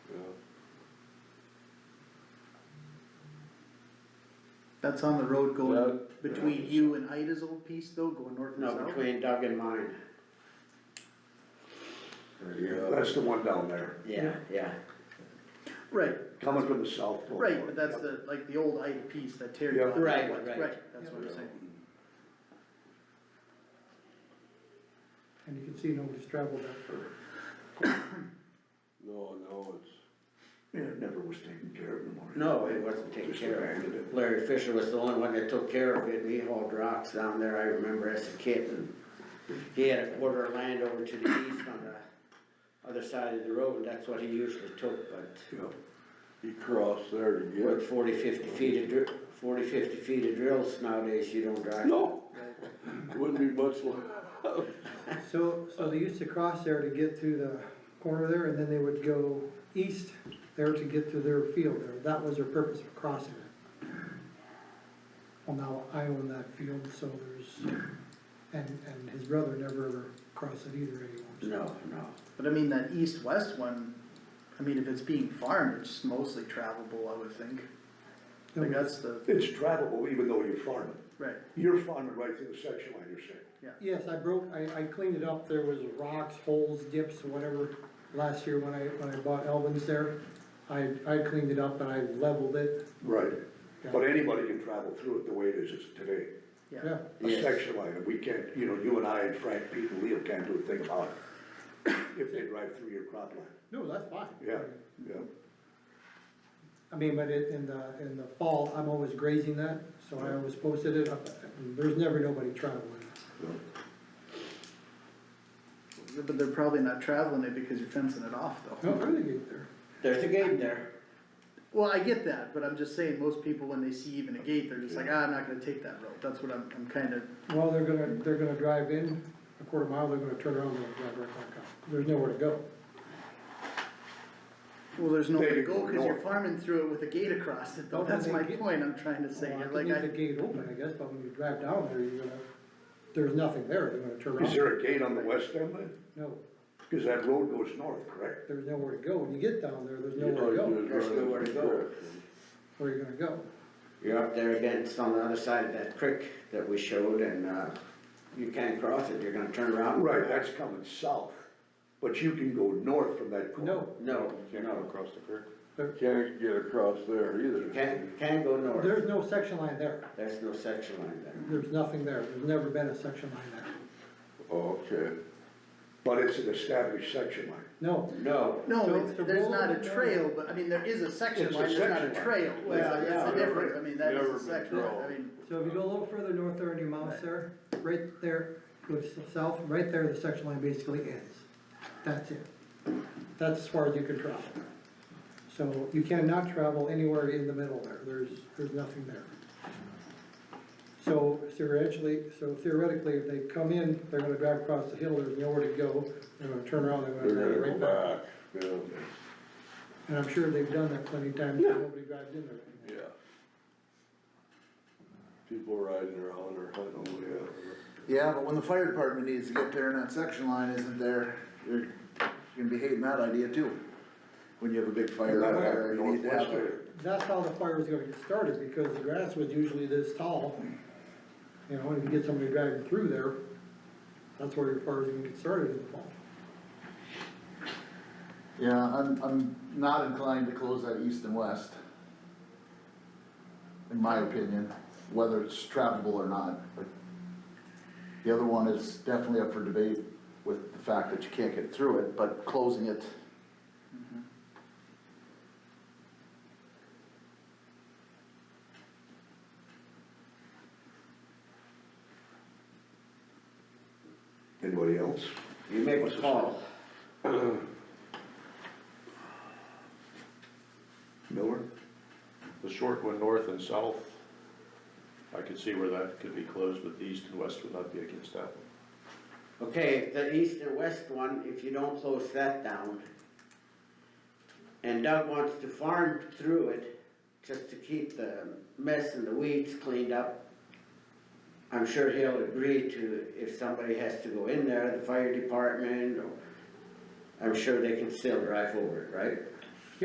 That's on the road going That- between you and Ida's old piece though, going north and No, south? between Doug and mine, uh, That's the one down there, yeah, yeah, Right, coming from the south. right, but that's the, like, the old Ida piece that Terry Yeah. bought. Right, right. that's what I'm saying. And you can see nobody's traveled that far. No, no, it's, Yeah, it never was taken care of in the morning. no, it wasn't taken Just care abandoned it. of. Larry Fisher was the only one that took care of it, and he hauled rocks down there, I remember as a kid, and he had a quarter of land over to the east on the other side of the road, and that's what he usually took, but Yeah, he crossed there to with get. forty, fifty feet of dri- forty, fifty feet of drills nowadays, you don't drive. No, wouldn't be much longer. So, so they used to cross there to get through the corner there, and then they would go east there to get to their field there. That was their purpose of crossing it. Well, now I own that field, so there's, and, and his brother never ever crossed it either anymore. so. No, no, But I mean, that east-west one, I mean, if it's being farmed, it's just mostly travelable, I would think. No, Like, that's the, It's travelable even though you're farming. right, You're farming right through the section line, you're saying. Yes, I broke, I, I cleaned it up, there was rocks, holes, dips, whatever, last year when I, when I bought Elvin's there. I, I cleaned it up and I leveled it, Right. Yeah. But anybody can travel through it the way it is is today. yeah. yeah. A Yes. section line, and we can't, you know, you and I and Frank, Pete and Leo can't do a thing about it. If they drive through your crop line, No, that's fine. yeah, yeah. I mean, but it, in the, in the fall, I'm always grazing that, so I always posted it up, there's never nobody traveling. But they're probably not traveling it because you're fencing it off though. No, really get there. there's a gate there, Well, I get that, but I'm just saying, most people, when they see even a gate, they're just like, ah, I'm not gonna take that road, that's what I'm, I'm kinda, Well, they're gonna, they're gonna drive in a quarter mile, they're gonna turn around and drive right back out. There's nowhere to go. well, there's nowhere to They go, go cause you're north. farming through it with a gate across it, though, Well, then that's they my get- point I'm trying to say, Well, I You're can like, leave the I, gate open, I guess, but when you drive down there, you're gonna, there's nothing there, they're gonna turn around. Is there a gate on the west end then? No, Cause that road goes north, correct? there's nowhere to go. When you get down there, there's You know, nowhere to you just go, There's run in nowhere to go. direction. where you're gonna go. you're up there against on the other side of that creek that we showed, and, uh, you can't cross it, you're gonna turn around. Right, that's coming south, but you can go north from that corner. No, No, Can't no. go across the creek. Can't get across there either. You can, you can go north, there's no section line there. there's no section line there. There's nothing there. There's never been a section line there. Oh, Okay, But it's an established section line. No, No, So no, it's the there's road not a and then- trail, but, I mean, there is a section It's a line, there's not a section line. trail, Well, that's, yeah, that's the never- difference, I mean, that never been is a section, line. I drawn. mean, So if you go a little further north there on your mouse there, right there, goes south, right there, the section line basically ends. That's it. That's as far as you can travel. So you cannot travel anywhere in the middle there, there's, there's nothing there. So theoretically, so theoretically, if they come in, they're gonna drive across the hill, there's nowhere to go, they're gonna turn around, they're gonna they're drive gonna right back. go back, yeah. And I'm sure they've done that plenty of times, and nobody drives in Yeah. there. People riding around or hunting, yeah. Yeah, but when the fire department needs to get there and that section line isn't there, you're gonna be hating that idea too. When you have a big fire out there, you need to have a- that's how the fire was gonna get started, because the grass was usually this tall. You know, and if you get somebody driving through there, that's where your fire's gonna get started in the fall. Yeah, I'm, I'm not inclined to close that east and west. In my opinion, whether it's travelable or not, but the other one is definitely up for debate with the fact that you can't get through it, but closing it. Anybody else? you make a call. Miller? The short one, north and south, I could see where that could be closed, but the east and west would not be against that one. Okay, the east and west one, if you don't close that down, and Doug wants to farm through it, just to keep the mess and the weeds cleaned up, I'm sure he'll agree to, if somebody has to go in there, the fire department, or, I'm sure they can still drive over it, right?